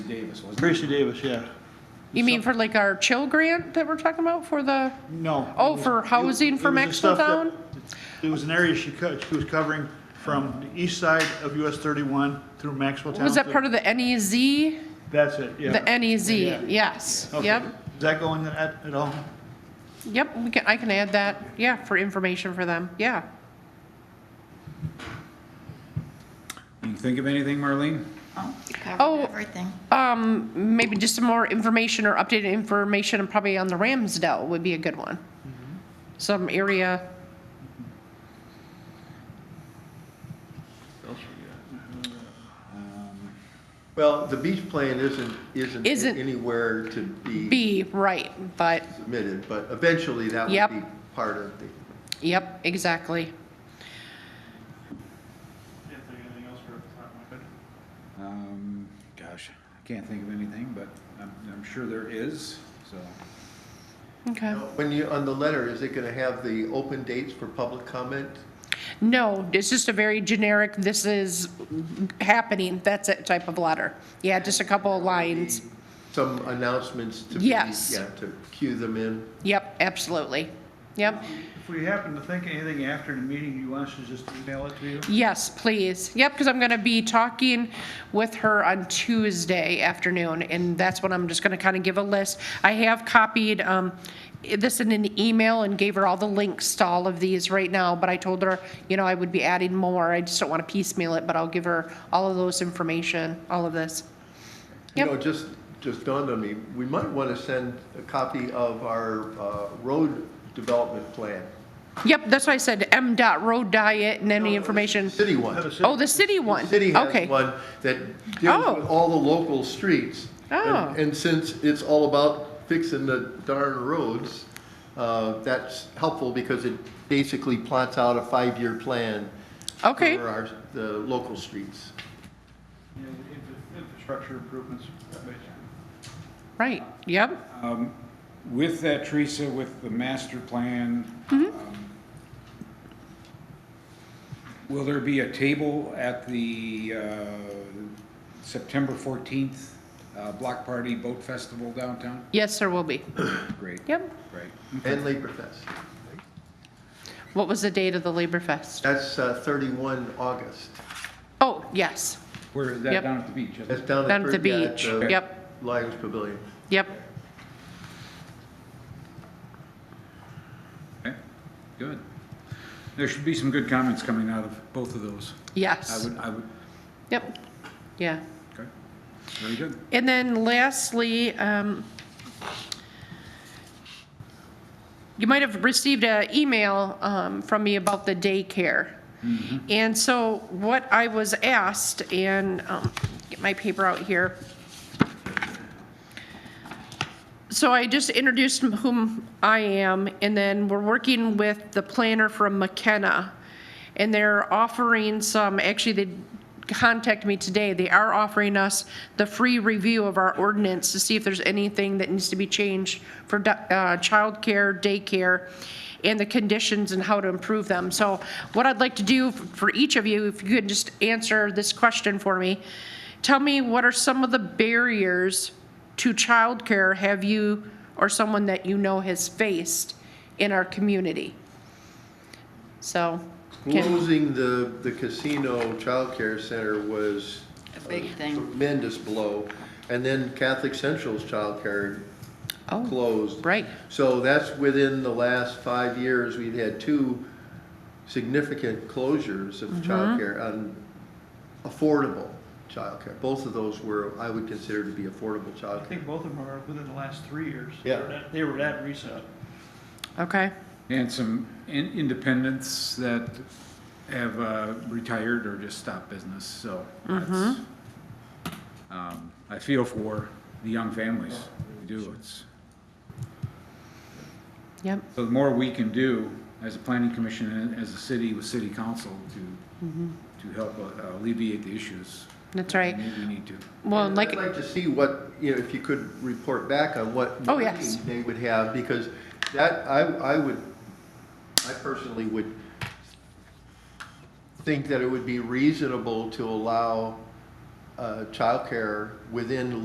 Davis, wasn't it? Gracie Davis, yeah. You mean for like our chill grant that we're talking about for the, No. Oh, it was- for it- housing it for was the stuff that- Maxwelltown? It was an area she cut, she was covering from the east side of US thirty-one through Maxwelltown. was that part of the NEZ? The That's it, yeah. NEZ, Yeah. yes, Okay. yep, Does that go in at, at all? yep, we can, I can add that, yeah, for information for them, yeah. Can you think of anything, Marlene? Oh, you Oh. covered everything. Um, maybe just some more information or updated information and probably on the Ramsdale would be a good one. Mm-hmm. Some area, Well, the beach plan isn't, isn't Isn't- anywhere to be B, right, but, submitted, but eventually that Yep. would be part of the, yep, exactly. Can't think of anything else for the top of my head. Um, gosh, I can't think of anything, but I'm, I'm sure there is, so. Okay. when you, on the letter, is it gonna have the open dates for public comment? No, it's just a very generic, this is happening, that's it type of letter. Yeah, just a couple of lines. Some announcements to be, yeah, Yes. to cue them in? Yep, absolutely. Yep, If we happen to think of anything after the meeting, you want us to just email it to you? yes, please. Yep, because I'm going to be talking with her on Tuesday afternoon, and that's when I'm just going to kind of give a list. I have copied um, this in an email and gave her all the links to all of these right now, but I told her, you know, I would be adding more. I just don't want to piecemeal it, but I'll give her all of those information, all of this. You Yep. know, just, just dawned on me, we might wanna send a copy of our, uh, road development plan. Yep, that's why I said M dot road diet and any information. City one. Oh, the city one? City Okay. has one that Oh. deals with all the local streets. And- Oh. And since it's all about fixing the darn roads, uh, that's helpful because it basically plots out a five-year plan. Okay. For uh, our, the local streets. You know, the infra- Infrastructure improvements, basically. Right, yep, Um, with that, Teresa, with the master plan, Mm-hmm. um, will there be a table at the, uh, September fourteenth, uh, block party boat festival downtown? yes, there will be, Great, yep. great. And Labor Fest. What was the date of the Labor Fest? That's uh, 31 August. Oh, yes, Where, is that Yep. down at the beach, isn't it? That's down at. down at the Bur- yeah, beach, the yep, Lions Pavilion. yep, Okay, good. There should be some good comments coming out of both of those. I yes, would, I would, yep, yeah. okay, very good. And then lastly, um, you might have received an email um, from me about the daycare. Mm-hmm. And so what I was asked, and um, get my paper out here. So I just introduced whom I am, and then we're working with the planner from McKenna. And they're offering some, actually, they contacted me today. They are offering us the free review of our ordinance to see if there's anything that needs to be changed for du- uh, childcare, daycare, and the conditions and how to improve them. So what I'd like to do for each of you, if you could just answer this question for me. Tell me, what are some of the barriers to childcare have you or someone that you know has faced in our community? So, can, Closing the, the casino childcare center was A big thing. Uh, tremendous blow. And then Catholic Central's childcare oh, closed. right, So that's within the last five years, we've had two significant closures of Mm-hmm. childcare on affordable childcare. Both of those were, I would consider to be affordable I childcare. think both of them are within the last three years. Yeah. They were that- They were that recent. okay, And some in- independents that have uh, retired or just stopped business, so that's, Mm-hmm. um, I feel for the young families, we do, it's, yep, so the more we can do as a planning commission and as a city with city council to, to help uh, alleviate the issues, Mm-hmm. that's right. we we need to. Well, And like, I'd like to see what, you know, if you could report back on what. Oh, yes. meeting They would have, because that, I, I would, I personally would think that it would be reasonable to allow uh, childcare within